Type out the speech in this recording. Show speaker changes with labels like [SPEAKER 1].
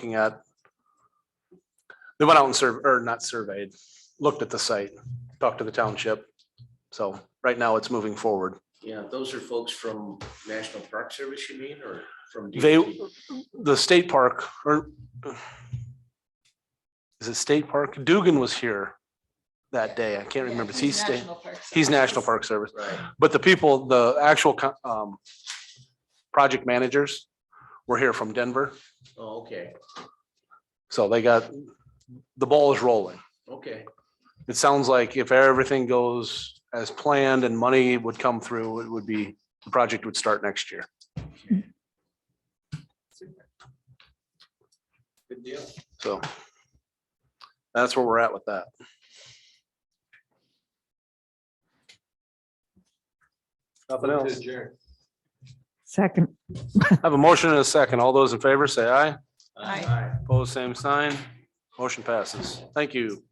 [SPEAKER 1] looking at. They went out and served, or not surveyed, looked at the site, talked to the township. So right now it's moving forward.
[SPEAKER 2] Yeah, those are folks from National Park Service, you mean, or from?
[SPEAKER 1] They-
[SPEAKER 2] DOT?
[SPEAKER 1] The state park or is it state park? Dugan was here that day. I can't
[SPEAKER 3] Yeah,
[SPEAKER 1] remember.
[SPEAKER 3] he's
[SPEAKER 1] He's state,
[SPEAKER 3] National Park
[SPEAKER 1] he's
[SPEAKER 3] Service.
[SPEAKER 1] National Park Service.
[SPEAKER 2] Right,
[SPEAKER 1] But the people, the actual co- um, project managers were here from Denver,
[SPEAKER 2] oh, okay,
[SPEAKER 1] so they got, the ball is rolling.
[SPEAKER 2] okay,
[SPEAKER 1] It sounds like if everything goes as planned and money would come through, it would be, the project would start next year.
[SPEAKER 2] good deal.
[SPEAKER 1] So that's where we're at with that. Nothing else.
[SPEAKER 4] Second,
[SPEAKER 1] I Have a motion and a second. All those in favor, say aye.
[SPEAKER 3] Aye.
[SPEAKER 1] Opposed, same sign. Motion passes. Thank you.